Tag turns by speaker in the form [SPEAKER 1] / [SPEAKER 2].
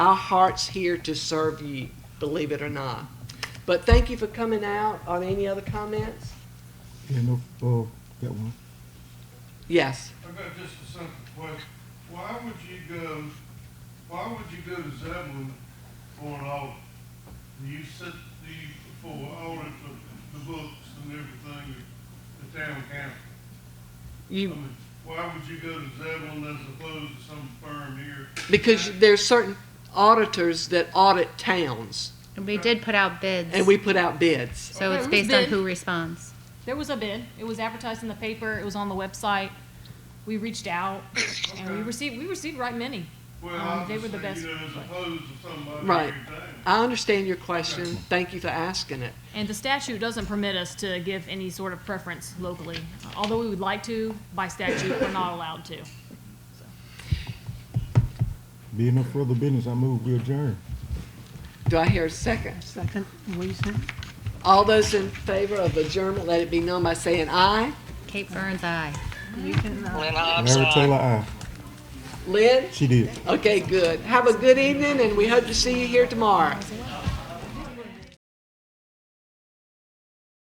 [SPEAKER 1] Our heart's here to serve you, believe it or not. But thank you for coming out. Are there any other comments?
[SPEAKER 2] Yeah, no, oh, got one.
[SPEAKER 1] Yes.
[SPEAKER 3] I got just a simple question. Why would you go, why would you go to Zeblin for an audit? Do you sit, do you, for audit the, the books and everything at the town council? I
[SPEAKER 1] You,
[SPEAKER 3] mean, Why would you go to Zeblin as opposed to some firm here?
[SPEAKER 1] because there's certain auditors that audit towns,
[SPEAKER 4] And we did put out bids.
[SPEAKER 1] and we put out bids.
[SPEAKER 4] so it's
[SPEAKER 5] Okay,
[SPEAKER 4] based on
[SPEAKER 5] bid.
[SPEAKER 4] who responds.
[SPEAKER 5] There was a bid. It was advertised in the paper. It was on the website. We reached out and we
[SPEAKER 3] Okay.
[SPEAKER 5] received we received right many.
[SPEAKER 3] Well,
[SPEAKER 5] Um, they were the
[SPEAKER 3] obviously, you
[SPEAKER 5] best
[SPEAKER 3] know, as
[SPEAKER 5] place.
[SPEAKER 3] opposed to somebody
[SPEAKER 1] Right.
[SPEAKER 3] here in town.
[SPEAKER 1] I understand your question. Thank you for asking it.
[SPEAKER 5] And the statute doesn't permit us to give any sort of preference locally, although we would like to. By statute, we're not allowed to.
[SPEAKER 2] Being no further business, I move we adjourn.
[SPEAKER 1] Do I hear a second?
[SPEAKER 6] Second, what you said?
[SPEAKER 1] All those in favor of adjournment, let it be known by saying aye.
[SPEAKER 4] Kate Burns, aye.
[SPEAKER 6] You can, uh,
[SPEAKER 2] Larry Taylor, aye.
[SPEAKER 1] Lynn?
[SPEAKER 2] She did.
[SPEAKER 1] Okay, good. Have a good evening, and we hope to see you here tomorrow.